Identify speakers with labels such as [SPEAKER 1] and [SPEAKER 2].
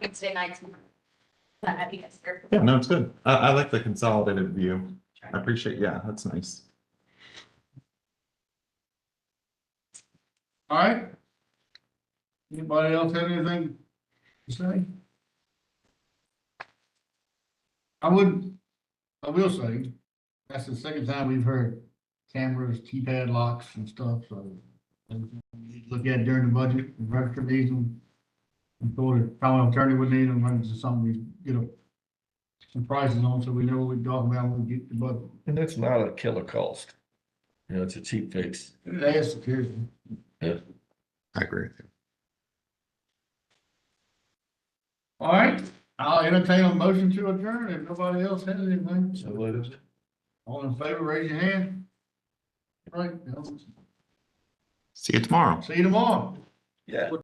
[SPEAKER 1] Wednesday nights. But I think it's fair.
[SPEAKER 2] Yeah, no, it's good. I, I like the consolidated view. I appreciate, yeah, that's nice.
[SPEAKER 3] All right. Anybody else have anything to say? I would, I will say, that's the second time we've heard cameras, keypad locks and stuff, so. Look at during the budget, register these and and go to county attorney would need them, run into something we get a some prices on, so we know what we're talking about when we get the budget.
[SPEAKER 4] And that's not a killer cost. You know, it's a cheap fix.
[SPEAKER 3] That's security.
[SPEAKER 2] I agree with you.
[SPEAKER 3] All right, I'll entertain a motion to adjourn if nobody else has anything.
[SPEAKER 4] So what is it?
[SPEAKER 3] All in favor, raise your hand. Right, Bill.
[SPEAKER 2] See you tomorrow.
[SPEAKER 3] see you tomorrow.
[SPEAKER 4] Yeah.